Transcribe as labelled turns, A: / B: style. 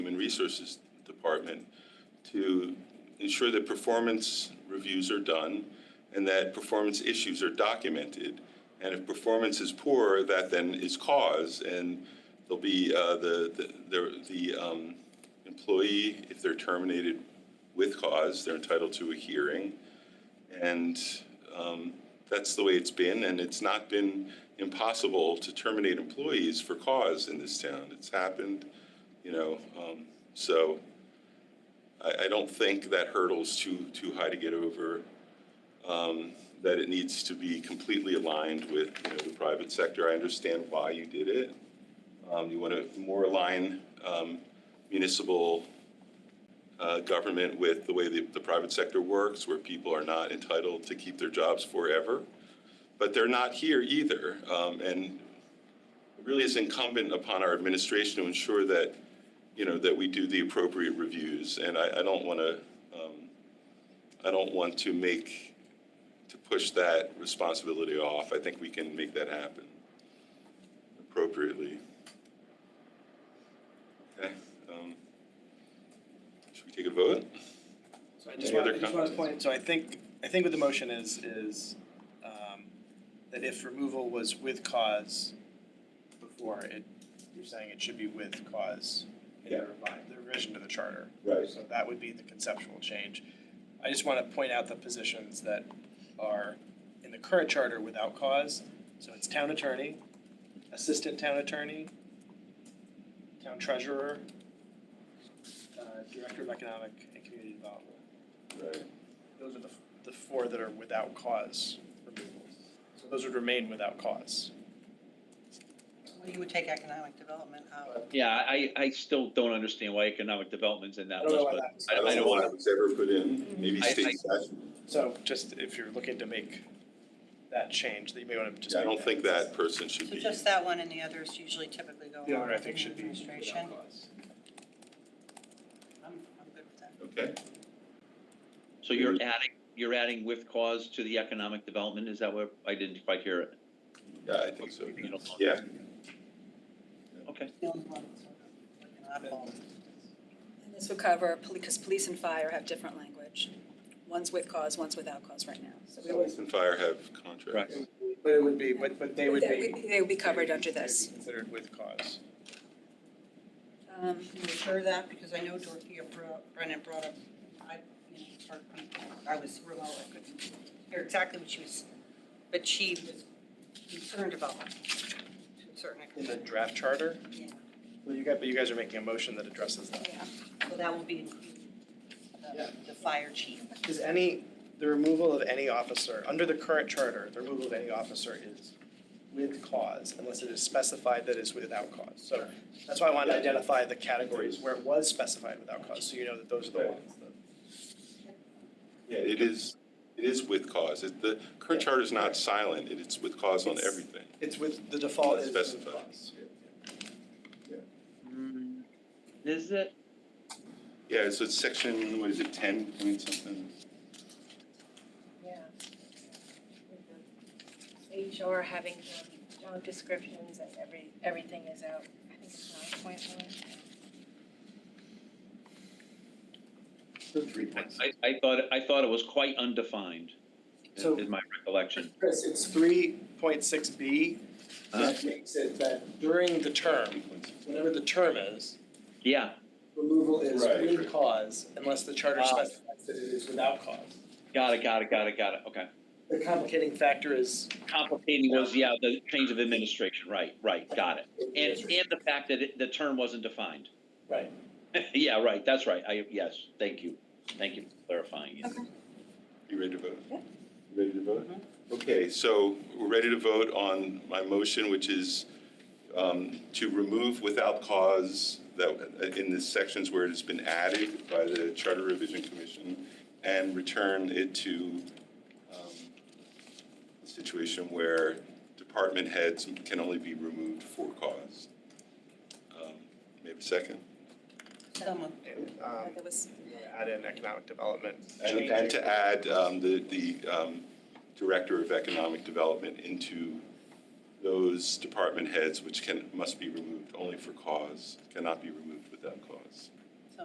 A: Resources Department to ensure that performance reviews are done and that performance issues are documented. And if performance is poor, that then is cause, and there'll be uh, the, the- the, the um, employee, if they're terminated with cause, they're entitled to a hearing. And um, that's the way it's been, and it's not been impossible to terminate employees for cause in this town. It's happened, you know, um, so I, I don't think that hurdle's too, too high to get over. um, That it needs to be completely aligned with, you know, the private sector. I understand why you did it. Um, You want to more align um, municipal uh, government with the way the, the private sector works, where people are not entitled to keep their jobs forever. But they're not here either. Um, and it really is incumbent upon our administration to ensure that, you know, that we do the appropriate reviews. And I, I don't want to, um, I don't want to make, to push that responsibility off. I think we can make that happen appropriately. Okay, um, should we take a vote?
B: So I just
A: Any
B: want,
A: other
B: I just want
A: comments?
B: to point, so I think, I think what the motion is, is um, that if removal was with cause before, it, you're saying it should be with cause in
A: Yeah.
B: the revi- the revision to the charter.
A: Right.
B: So that would be the conceptual change. I just want to point out the positions that are in the current charter without cause. So it's town attorney, assistant town attorney, town treasurer, uh, director of economic and community development.
A: Right.
B: Those are the, the four that are without cause removal. So those would remain without cause.
C: Well, you would take economic development out.
D: Yeah, I, I still don't understand why economic development's in that list, but
B: was.
D: I- I don't
A: why
D: want
A: it was ever put in, maybe
D: I- I-
A: state statute.
B: So just if you're looking to make that change, that you may want to just.
A: Yeah, I
B: make
A: don't think that person should
C: So
A: be.
C: just that one and the others usually typically go
B: The
C: along
B: other, I
C: with
B: think,
C: the
B: should be
C: administration.
B: without cause.
C: I'm, I'm good with that.
A: Okay,
D: so you're adding, you're adding with cause to the economic development, is that what, I didn't quite hear it.
A: yeah, I think so.
D: You don't know.
A: Yeah,
D: Okay,
C: The only one that's sort of like an oddball.
E: And this would cover, because police and fire have different language. One's with cause, one's without cause right now. So we would-
A: police and fire have contracts.
D: Right.
B: But it would be, but, but they would be.
E: They would be covered
B: they would be-
E: under
B: they would be
E: this.
B: Considered with cause.
E: Um,
C: Can you assure that, because I know Dorothea brought- Brennan brought up, I, you know, for people, I was remote, I couldn't hear exactly what she was, but she was concerned about to a certain
B: In the
C: extent.
B: draft charter,
C: Yeah,
B: well, you guys, but you guys are making a motion that addresses that.
C: yeah. So that will be included, uh,
B: Yeah.
C: the, the fire chief.
B: Is any, the removal of any officer, under the current charter, the removal of any officer is with cause unless it is specified that it's without cause. So that's why I wanted to identify the categories where it was specified without cause, so you know that those are the ones that.
A: Yeah, it is, it is with cause. It- The current charter is not silent, It- it's with cause on everything.
B: It's with, the default is with
A: Specified.
B: cause.
D: Mm, is it,
A: Yeah, so it's section, what is it, 10 point something?
F: Yeah. HR having um, job descriptions and every, everything is out, I think it's nine point one.
D: I, I thought, I thought it was quite undefined, is
B: So-
D: is my recollection.
B: Chris, it's three point six B that makes it that during the term, whatever the term is,
D: Yeah,
B: removal is
A: Right.
B: with cause unless the charter
D: Ah.
B: specifies that it is without cause.
D: got it, got it, got it, got it, okay.
B: The complicating factor is
D: Complicating was, yeah, the change of administration, right, right, got it. And, and the fact that it- the term wasn't defined.
B: Right.
D: Yeah, right, that's right, I, yes, thank you, thank you for clarifying. it.
A: You ready to vote? Yeah. Ready to vote? Okay, so we're ready to vote on my motion, which is um, to remove without cause that, uh, in the sections where it has been added by the Charter Revision Commission and return it to um, a situation where department heads can only be removed for cause. Um, Maybe a second?
C: Someone.
B: and um
E: that was,
B: add in economic development.
A: And,
B: change
A: and to
B: it.
A: add um, the, the um, Director of Economic Development into those department heads which can, must be removed only for cause, cannot be removed without cause.